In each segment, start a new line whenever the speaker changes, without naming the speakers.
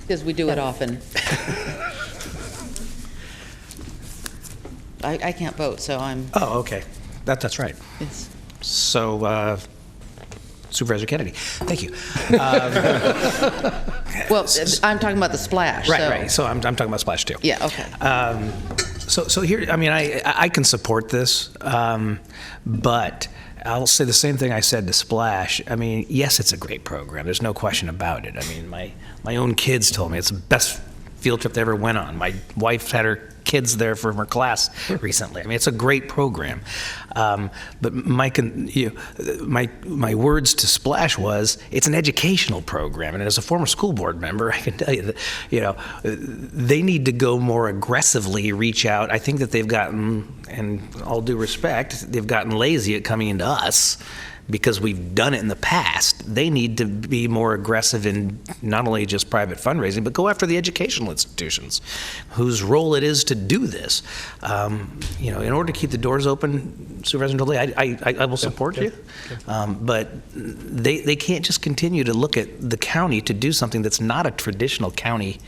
Because we do it often. I, I can't vote, so I'm,
Oh, okay. That, that's right.
it's,
So uh, Supervisor Kennedy, thank you.
well, I'm talking about the splash, so.
Right, right. So I'm, I'm talking about splash too.
Yeah, okay.
Um, so, so here, I mean, I, I can support this, um, but I'll say the same thing I said to Splash. I mean, yes, it's a great program. There's no question about it. I mean, my, my own kids told me it's the best field trip they ever went on. My wife had her kids there from her class recently. I mean, it's a great program. Um, but my, con- you, my, my words to Splash was, it's an educational program. And as a former school board member, I can tell you that, you know, they need to go more aggressively reach out. I think that they've gotten, and all due respect, they've gotten lazy at coming into us because we've done it in the past. They need to be more aggressive in not only just private fundraising, but go after the educational institutions whose role it is to do this. Um, you know, in order to keep the doors open, Supervisor Dolly, I, I, I- I will support you. Um, but they, they can't just continue to look at the county to do something that's not a traditional county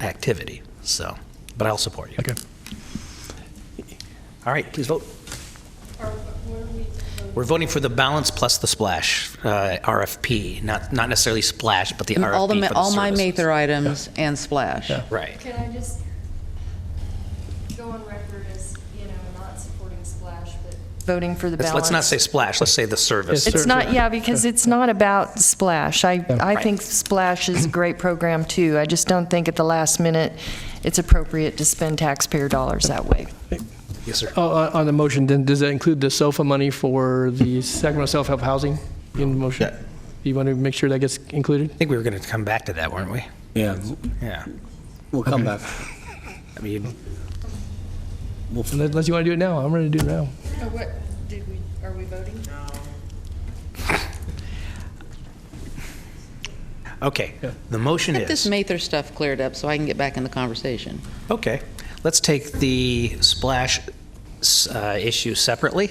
activity. So, but I'll support you.
Okay.
All right, please vote. We're voting for the balance plus the splash, uh, RFP, not, not necessarily splash, but the RFP
All the,
for
ma-
the
all my
services.
Mather items and splash.
Yeah.
Right.
Can I just go on record as, you know, not supporting Splash, but voting for the
Let's,
balance?
let's not say splash, let's say the service.
It's not, yeah, because it's not about Splash. I, I think Splash is a great program, too. I just don't think at the last minute it's appropriate to spend taxpayer dollars that way.
Yes, sir.
Oh, uh, On the motion, then, does that include the SOFA money for the Sacramento self-help housing in the motion?
Yeah.
You want to make sure that gets included?
I think we were going to come back to that, weren't we?
Yeah,
Yeah.
we'll come back.
I mean,
Unless you want to do it now, I'm ready to do it now.
What, did we, are we voting?
okay, the motion
Get this
is,
Mather stuff cleared up so I can get back in the conversation.
okay, let's take the splash s- uh, issue separately,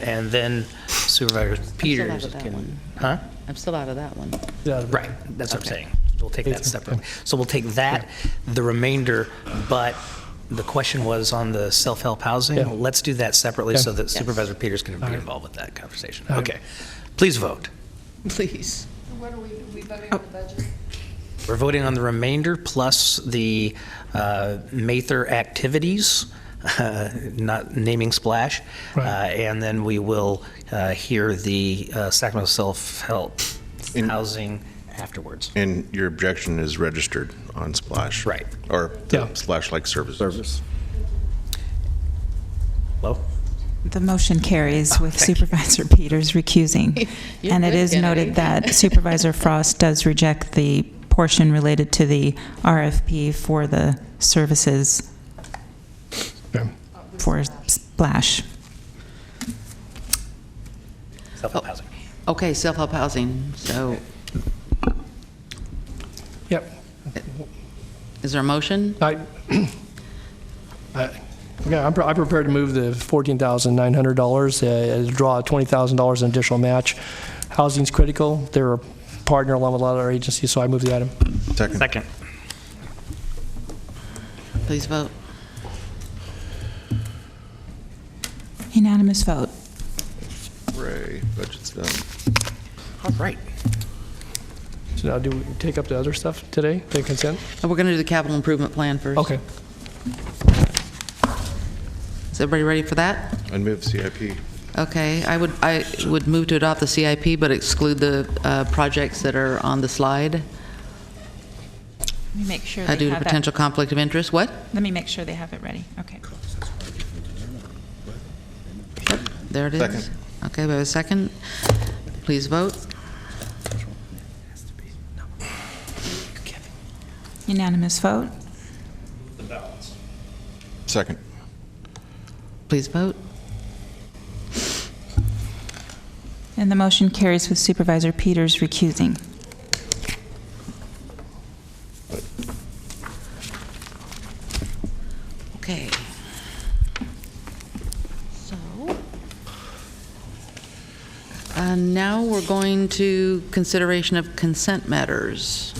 and then Supervisor Peters
that
can.
one.
Huh?
I'm still out of that one.
Yeah.
Right, that's what I'm
Okay.
saying. We'll take that separately. So we'll take that, the remainder, but the question was on the self-help
Yeah.
housing. Let's do that separately so that
Yes.
Supervisor Peters can be
All right.
involved with that conversation.
All right.
Okay. Please vote.
Please.
What are we, we voting on the budget?
We're voting on the remainder plus the uh, Mather activities, uh, not naming splash. Uh,
Right.
And then we will uh, hear the uh, Sacramento self-help
In-
housing afterwards.
And your objection is registered on Splash?
Right.
Or
Yeah.
Splash-like services?
Service.
Hello?
The motion carries with
thank you.
Supervisor Peters recusing.
You're
And it
good,
is
Kennedy.
noted that Supervisor Frost does reject the portion related to the RFP for the services for Splash.
Self-help housing.
Okay, self-help housing, so
Yep.
is there a motion?
I, I, okay, Uh, I'm, pre- I'm prepared to move the fourteen thousand nine hundred dollars, uh, draw twenty thousand dollars in additional match. Housing's critical. They're a partner along with a lot of our agencies, so I move the item.
Second.
Second.
Please vote.
Unanimous vote.
Hooray, budget's done.
All right.
So now do we take up the other stuff today, the consent?
And we're going to do the capital improvement plan first.
Okay.
Is everybody ready for that?
And move CIP.
Okay, I would, I would move to adopt the CIP, but exclude the uh, projects that are on the slide
Let me make sure
uh, due to potential conflict of interest. What?
Let me make sure they have it ready. Okay.
There it is.
Second.
Okay, we have a second. Please vote.
Unanimous vote.
Second.
Please vote.
And the motion carries with Supervisor Peters recusing.
Okay. So, uh, now we're going to consideration of consent matters.